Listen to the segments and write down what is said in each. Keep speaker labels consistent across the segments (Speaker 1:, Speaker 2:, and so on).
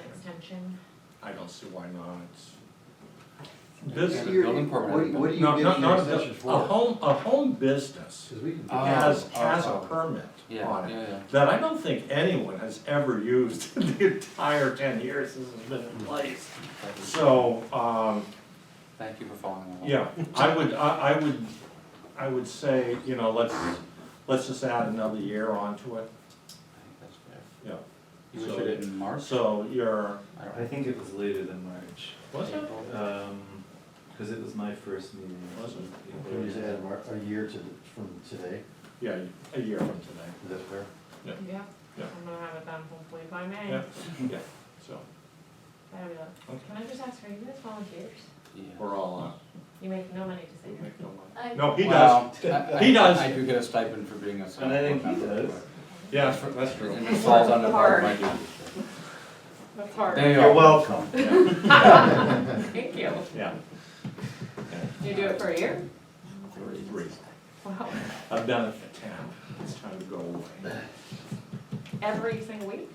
Speaker 1: extension?
Speaker 2: I don't see why not.
Speaker 3: Yeah,
Speaker 2: Business,
Speaker 3: the building permit.
Speaker 4: What, what do you
Speaker 2: no, Oh.
Speaker 4: get
Speaker 2: not,
Speaker 4: an
Speaker 2: not,
Speaker 4: extension
Speaker 2: a
Speaker 4: for?
Speaker 2: home, a home business
Speaker 4: Cause we can.
Speaker 3: Oh,
Speaker 2: has,
Speaker 3: oh,
Speaker 2: has a
Speaker 3: oh.
Speaker 2: permit
Speaker 3: Yeah,
Speaker 2: on
Speaker 3: yeah,
Speaker 2: it.
Speaker 3: yeah.
Speaker 2: That I don't think anyone has ever used in the entire ten years this has been in place.
Speaker 3: Thank you.
Speaker 2: So, um,
Speaker 3: Thank you for following along.
Speaker 2: yeah, I would, I, I would, I would say, you know, let's, let's just add another year onto it,
Speaker 3: I think that's fair.
Speaker 2: yeah.
Speaker 3: You
Speaker 2: So-
Speaker 3: issued it in March?
Speaker 2: So you're,
Speaker 3: I don't
Speaker 5: I think it was later than March,
Speaker 2: what's it?
Speaker 3: April.
Speaker 5: Um 'cause cause it was my first meeting.
Speaker 2: Was it?
Speaker 4: Can we just add mar- a year to, the- from today,
Speaker 2: Yeah, a year from today,
Speaker 4: is that fair?
Speaker 1: Yeah.
Speaker 2: Yeah.
Speaker 1: I'm gonna have it done hopefully by May.
Speaker 2: yeah, yeah, so,
Speaker 1: Fabulous.
Speaker 2: Okay.
Speaker 1: Can I just ask, are you guys volunteers?
Speaker 3: Yeah.
Speaker 2: we're all, uh,
Speaker 1: You make no money to
Speaker 2: we
Speaker 1: say
Speaker 2: make no money.
Speaker 1: that.
Speaker 2: No, he does,
Speaker 3: Well, I- I-
Speaker 2: He does.
Speaker 3: I do get a stipend for being a select
Speaker 5: And I think
Speaker 3: board
Speaker 5: he
Speaker 3: member.
Speaker 5: does.
Speaker 2: yeah, that's true, that's true.
Speaker 3: And it falls under part of my duties.
Speaker 1: That's
Speaker 3: There
Speaker 1: hard.
Speaker 3: you
Speaker 5: You're
Speaker 3: are.
Speaker 5: welcome.
Speaker 2: Yeah,
Speaker 1: Thank you.
Speaker 2: yeah.
Speaker 1: You do it for a year?
Speaker 2: Three.
Speaker 1: Wow.
Speaker 2: I've done it for ten, it's time to go away.
Speaker 1: Every single week?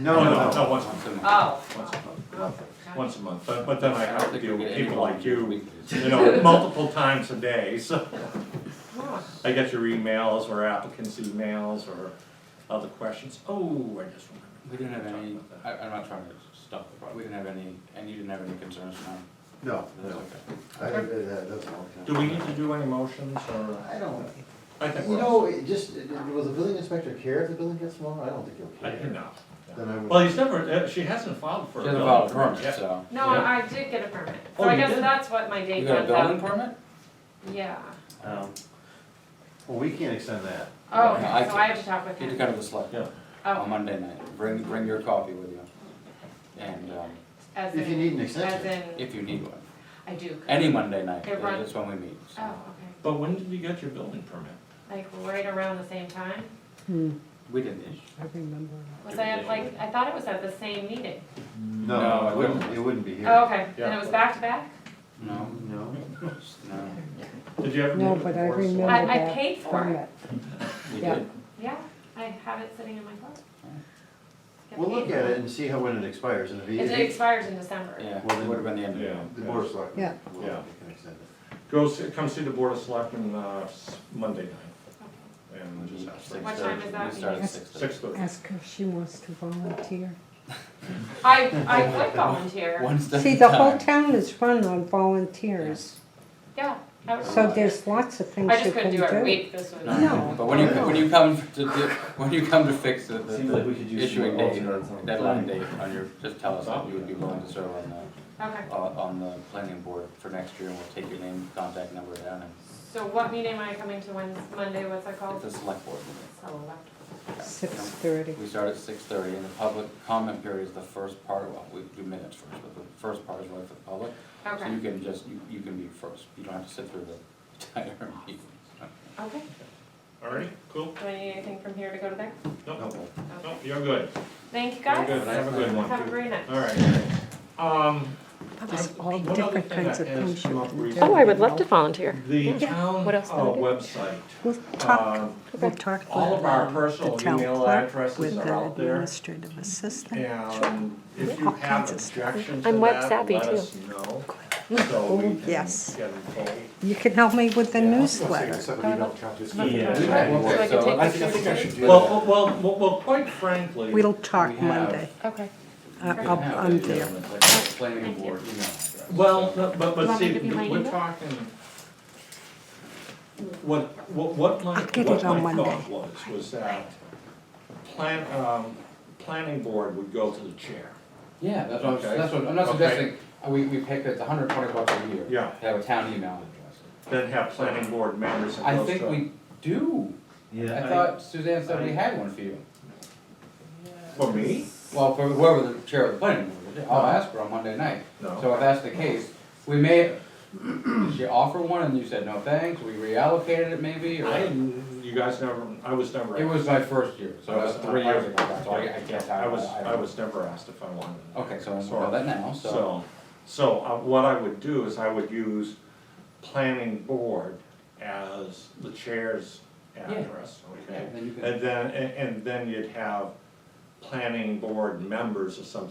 Speaker 4: No, no, no.
Speaker 2: No, once,
Speaker 3: Once a month.
Speaker 1: Oh.
Speaker 2: once a month,
Speaker 1: wow.
Speaker 2: once a month, but, but then I
Speaker 3: don't
Speaker 2: have to
Speaker 3: think we
Speaker 2: deal
Speaker 3: get
Speaker 2: with
Speaker 3: any
Speaker 2: people like
Speaker 3: volunteers
Speaker 2: you,
Speaker 3: weekly.
Speaker 2: you know, multiple times a day, so.
Speaker 1: Wow.
Speaker 2: I get your emails or applicants' emails or other questions, oh, I just remembered.
Speaker 3: We didn't have any,
Speaker 2: Talk about
Speaker 3: I, I'm not trying to stop the problem, we didn't have any, and you didn't have any concerns, no?
Speaker 4: No,
Speaker 3: That's
Speaker 4: no,
Speaker 3: okay.
Speaker 4: I, that, that doesn't all count.
Speaker 2: Do we need to do any motions or?
Speaker 4: I don't,
Speaker 2: I think
Speaker 4: you
Speaker 2: we're-
Speaker 4: know, it just, it- it- will the building inspector care if the building gets smaller? I don't think
Speaker 2: I
Speaker 4: he'll
Speaker 2: think
Speaker 4: care.
Speaker 2: no.
Speaker 4: Then I would.
Speaker 2: Well, he's never, uh, she hasn't filed for a
Speaker 3: She
Speaker 2: building
Speaker 3: hasn't filed a
Speaker 2: permit
Speaker 3: permit,
Speaker 2: yet.
Speaker 3: so.
Speaker 1: No,
Speaker 2: Yeah.
Speaker 1: I I did get a permit. So
Speaker 2: Oh,
Speaker 1: I
Speaker 2: you
Speaker 1: guess
Speaker 2: did?
Speaker 1: that's what my
Speaker 3: You
Speaker 1: date
Speaker 3: got a
Speaker 1: comes
Speaker 3: building
Speaker 1: out.
Speaker 3: permit?
Speaker 1: Yeah.
Speaker 5: Um,
Speaker 4: Well, we can't extend that.
Speaker 1: Oh,
Speaker 3: No, I
Speaker 1: okay, so I have to talk with
Speaker 3: Get to
Speaker 1: him.
Speaker 3: go to the select
Speaker 2: Yeah.
Speaker 3: on
Speaker 1: Oh,
Speaker 3: Monday night, bring, bring your coffee with you. And, um,
Speaker 1: as in.
Speaker 4: If you need an
Speaker 1: As
Speaker 4: extension,
Speaker 1: in,
Speaker 3: if you need one,
Speaker 1: I do.
Speaker 3: any Monday night,
Speaker 1: It run-
Speaker 3: that's when we meet, so.
Speaker 1: Oh, okay.
Speaker 2: But when did you get your building permit?
Speaker 1: Like right around the same time?
Speaker 3: We didn't issue.
Speaker 1: Was I at like, I thought it was at the same meeting.
Speaker 3: No,
Speaker 4: no,
Speaker 3: I
Speaker 4: it wouldn't,
Speaker 3: wouldn't.
Speaker 4: it wouldn't be here.
Speaker 1: Oh, okay, and
Speaker 2: Yeah.
Speaker 1: it was back to back?
Speaker 3: No,
Speaker 4: No,
Speaker 3: no,
Speaker 2: Did you ever?
Speaker 6: No,
Speaker 2: do it
Speaker 6: but I
Speaker 2: before, so-
Speaker 6: remember-
Speaker 1: I, I
Speaker 6: back
Speaker 1: paid for it,
Speaker 6: permit.
Speaker 3: we
Speaker 6: Yeah.
Speaker 3: did.
Speaker 1: yeah, I have it sitting in my car. Got
Speaker 4: we'll look
Speaker 1: paid
Speaker 4: at
Speaker 1: for
Speaker 4: it and see how, when it expires, and if he,
Speaker 1: It
Speaker 4: if he-
Speaker 1: expires in December.
Speaker 3: Yeah,
Speaker 4: Well,
Speaker 3: it
Speaker 4: then-
Speaker 3: would have been the end of the
Speaker 2: Yeah.
Speaker 3: month.
Speaker 4: the board of selectmen.
Speaker 6: Yeah.
Speaker 4: will,
Speaker 2: Yeah.
Speaker 4: they can extend it.
Speaker 2: Go see, come see the board of selectmen, uh, s- Monday night
Speaker 1: Okay.
Speaker 2: and just ask
Speaker 3: Six
Speaker 2: for
Speaker 1: What time
Speaker 3: thirty.
Speaker 1: is that
Speaker 3: We start at
Speaker 1: meeting?
Speaker 3: six thirty.
Speaker 2: six thirty.
Speaker 6: Ask her if she wants to volunteer.
Speaker 1: I, I would volunteer,
Speaker 3: One step
Speaker 6: See,
Speaker 3: at
Speaker 6: the
Speaker 3: a
Speaker 6: whole
Speaker 3: time.
Speaker 6: town is run on volunteers,
Speaker 1: yeah. I would
Speaker 6: so
Speaker 1: volunteer.
Speaker 6: there's lots of things
Speaker 1: I
Speaker 6: you
Speaker 1: just
Speaker 6: can
Speaker 1: couldn't do every
Speaker 6: do.
Speaker 1: week this week.
Speaker 6: No.
Speaker 3: But when you,
Speaker 6: No.
Speaker 3: when you come to, do- when you come to fix the, the-
Speaker 5: Seems like we could
Speaker 3: the
Speaker 5: use some
Speaker 3: issuing date,
Speaker 5: alternates on the
Speaker 3: deadline
Speaker 5: plan.
Speaker 3: date on your, just tell us that you would be willing to serve on
Speaker 1: Okay,
Speaker 3: the, on, on the planning board for next year and we'll take your name, contact number down and
Speaker 1: so what meeting am I coming to Wednesday, Monday, what's that called?
Speaker 3: it's a select board meeting.
Speaker 1: Select.
Speaker 6: Six thirty.
Speaker 3: We start at six thirty, and the public comment period is the first part, well, we do minutes first, but the first part is right for the public. So you
Speaker 1: Okay,
Speaker 3: can just, you, you can be first, you don't have to sit through the entire meeting.
Speaker 1: okay,
Speaker 2: All right, cool.
Speaker 1: do I need anything from here to go to there?
Speaker 2: No,
Speaker 4: No.
Speaker 2: no, you're good.
Speaker 1: Thank you
Speaker 2: You're
Speaker 1: guys.
Speaker 2: good. Have a good one.
Speaker 1: Have a great night.
Speaker 2: All right. Um,
Speaker 6: That was all
Speaker 2: One other
Speaker 6: different
Speaker 2: thing
Speaker 6: kinds
Speaker 2: that
Speaker 6: of
Speaker 2: has
Speaker 6: things you
Speaker 2: come up
Speaker 6: can do.
Speaker 2: recently- Oh, I
Speaker 1: volunteer.
Speaker 2: the town uh,
Speaker 1: What else did I do?
Speaker 2: website,
Speaker 6: We'll
Speaker 2: uh,
Speaker 6: talk, we'll talk
Speaker 2: all
Speaker 6: with
Speaker 2: of our
Speaker 6: um,
Speaker 2: personal
Speaker 6: the town
Speaker 2: email
Speaker 6: clerk,
Speaker 2: addresses
Speaker 6: with
Speaker 2: are
Speaker 6: the
Speaker 2: out there.
Speaker 6: administrative assistant.
Speaker 2: And if you
Speaker 6: All
Speaker 2: have
Speaker 6: kinds of stuff.
Speaker 2: objections to
Speaker 7: I'm web
Speaker 2: that,
Speaker 7: savvy
Speaker 2: let
Speaker 7: too.
Speaker 2: us know. So we
Speaker 6: Oh,
Speaker 2: can get
Speaker 6: yes.
Speaker 2: involved.
Speaker 6: You can help me with the
Speaker 2: Yeah.
Speaker 6: newsletter.
Speaker 7: So I
Speaker 3: So,
Speaker 7: can take
Speaker 3: I
Speaker 7: the
Speaker 3: think- I think
Speaker 7: pictures.
Speaker 2: Well, well, well, well, quite frankly.
Speaker 6: We'll talk
Speaker 3: We have-
Speaker 6: Monday.
Speaker 7: Okay.
Speaker 6: I-
Speaker 3: You can
Speaker 6: I'll-
Speaker 3: have
Speaker 6: I'm
Speaker 3: it, you know,
Speaker 6: there.
Speaker 3: it's like a Planning board email address.
Speaker 2: Well, no, but, but
Speaker 7: Want me
Speaker 2: see,
Speaker 7: to be my
Speaker 2: we're
Speaker 7: email?
Speaker 2: talking. What, what, what my,
Speaker 6: I'll get
Speaker 2: what
Speaker 6: it on
Speaker 2: my thought
Speaker 6: Monday.
Speaker 2: was, was that plan, um, planning board would go to the chair.
Speaker 3: Yeah, that's what, I'm-
Speaker 2: Okay.
Speaker 3: that's what, I'm not
Speaker 2: Okay.
Speaker 3: suggesting, uh, we, we pick, it's hundred twenty bucks a year.
Speaker 2: Yeah.
Speaker 3: To have a town email address.
Speaker 2: Then have planning board members and
Speaker 3: I
Speaker 2: those.
Speaker 3: think we do, I
Speaker 5: Yeah,
Speaker 3: thought Suzanne said we had one for you.
Speaker 2: For me?
Speaker 3: Well, for whoever the chair of the planning board is, I'll ask her on Monday night.
Speaker 2: No.
Speaker 3: So if that's the case, we may, did she offer one and you said no thanks, we reallocated it maybe, or?
Speaker 2: I, you guys never, I was never.
Speaker 3: It was my first year, so that's three years ago, that's why I can't
Speaker 2: uh, I
Speaker 3: tell.
Speaker 2: was, I was never asked if I wanted. it.
Speaker 3: Okay, so we'll
Speaker 2: Sorry.
Speaker 3: know that now, so,
Speaker 2: So, so uh, what I would do is I would use planning board as the chair's address,
Speaker 3: Yeah,
Speaker 2: okay?
Speaker 3: then you can-
Speaker 2: And then, and and then you'd have planning board members or something